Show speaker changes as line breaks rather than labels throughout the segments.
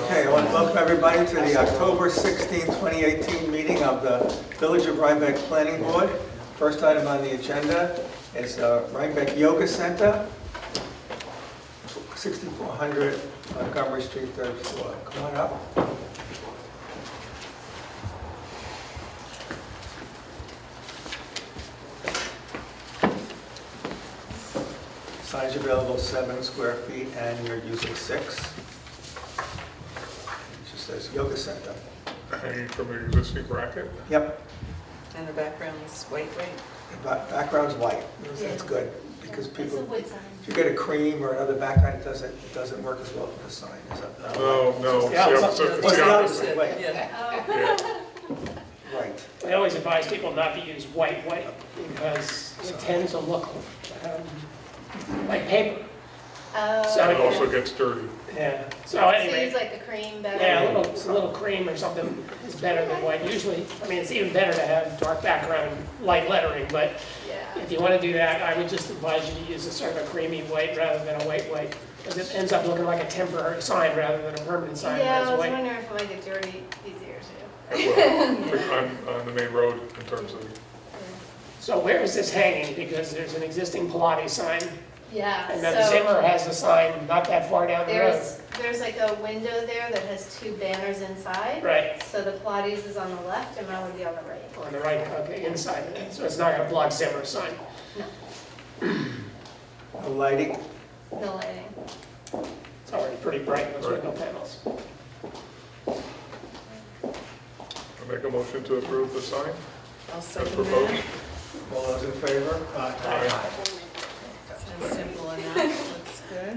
Welcome, everybody, to the October 16, 2018 meeting of the Village of Rhinebeck Planning Board. First item on the agenda is uh, Rhinebeck Yoga Center, 6400 Montgomery Street, third floor. Come on up. Size available, seven square feet, and you're using six. She says yoga center.
hanging from the existing bracket.
Yep,
And the background is white, white.
the ba- background's white, that's good, because
It's a
people,
wood sign.
if you get a cream or another background, it doesn't, it doesn't work as well for the sign, is that? not right?
No, Oh, no, it's the
Yeah, it's
opposite,
up-
it's the opposite.
wait.
Yeah.
Oh,
Yeah,
Right,
I always advise people not to use white white because it tends to look um, like paper.
Oh,
So-
It also gets dirty.
Yeah. So
so use
anyway,
like a cream back.
yeah, a little, a little cream or something is better than white. Usually, I mean, it's even better to have dark background, and light lettering, but
Yeah.
if you want to do that, I would just advise you to use a sort of a creamy white rather than a white white. Because it ends up looking like a temporary sign rather than a permanent sign
Yeah, I
that's
was
white.
wondering if like a dirty easier too.
Well, On, on the main road in terms of,
So where is this hanging? Because there's an existing Pilates sign
Yeah,
and then
so
Zimmer has a sign not that far down the road.
there's, there's like a window there that has two banners inside.
Right.
So the Pilates is on the left and mine would be on the right.
On the right, okay, inside of it, so it's not gonna block Zimmer's sign.
the lighting,
No lighting.
It's already pretty bright, those window panels.
I make a motion to approve the sign
I'll
as
second
proposed.
that.
all those in favor?
Aye.
Sounds simple enough, looks good.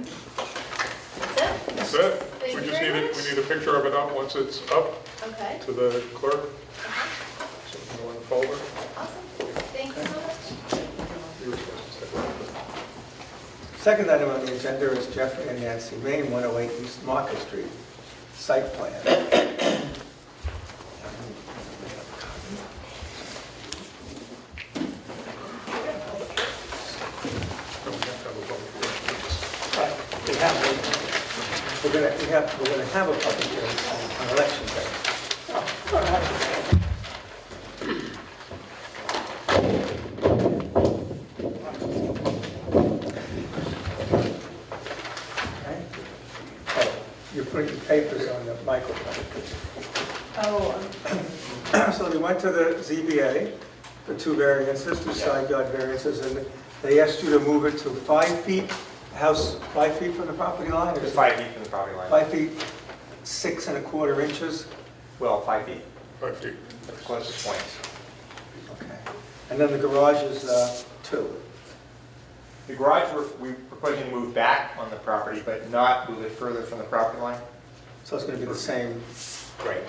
That's it?
That's it.
Thank
We
you
just need
very
it, we
much.
need a picture of it up once it's up
Okay,
to the clerk.
Uh-huh.
So we can go in the folder.
awesome. Thank you so much.
You were supposed to say.
Second item on the agenda is Jeffrey and Nancy Main, 108 East Market Street, site plan.
No, we have to have a public hearing.
Right, we have one.
We're gonna, we have, we're gonna have a public hearing on- on election day.
Oh, all right.
Okay. Oh, You're putting the papers on the microphone. Oh. So we went to the ZBA, the two variances, two side yard variances, and they asked you to move it to five feet, house five feet from the property line? or
It's five feet from the property line.
Five feet, six and a quarter inches?
Well, five feet,
Five feet.
at the closest points.
Okay. And then the garage is uh, two.
The garage, we're- we're proposing to move back on the property, but not move it further from the property line.
So it's going to be the same,
Right.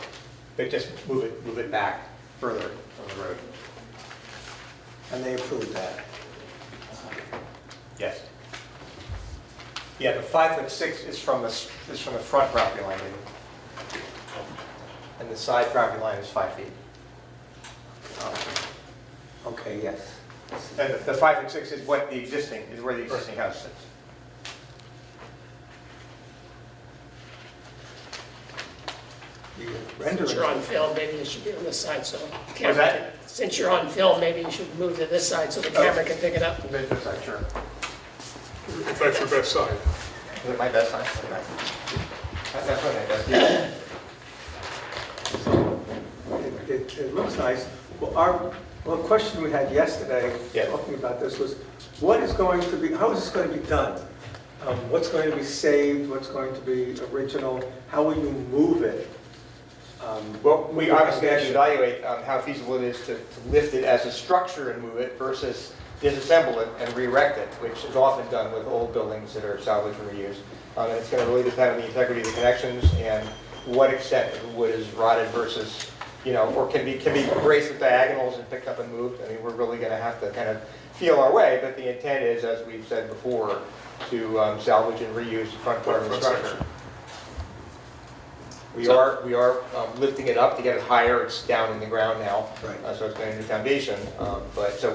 But just move it, move it back further on the road.
and they approved that.
Yes. Yeah, the five foot six is from the, s- is from the front property line. maybe. And the side property line is five feet.
Okay, yes.
And the- the five foot six is what the existing, is where the existing house sits.
The
Since
rendering-
you're on film, maybe it should be on this side, so. the
What's that? Oh.
camera- Since you're on film, maybe you should move to this side so the camera can pick it up.
Is that- is that Sure.
If that's your best side.
Is it my best sign? That- That's what I best.
It, it- it looks nice. Well, our, well, the question we had yesterday,
Yeah.
talking about this, was what is going to be, how is this going to be done? Um, What's going to be saved, what's going to be original, how will you move it? Um,
Well, we obviously have to
Yeah.
evaluate um, how feasible it is to to lift it as a structure and move it versus disassemble it and re-erect it, which is often done with old buildings that are salvaged and reused. Um, And it's going to really depend on the integrity of the connections and what extent of the wood is rotted versus, you know, or can be, can be braced with diagonals and picked up and moved. I mean, we're really going to have to kind of feel our way, but the intent is, as we've said before, to um, salvage and reuse the front part of the
Front section.
structure. We are, we are um, lifting it up to get it higher, it's down in the ground now.
Right.
Uh, So it's going to be foundation, um, but, so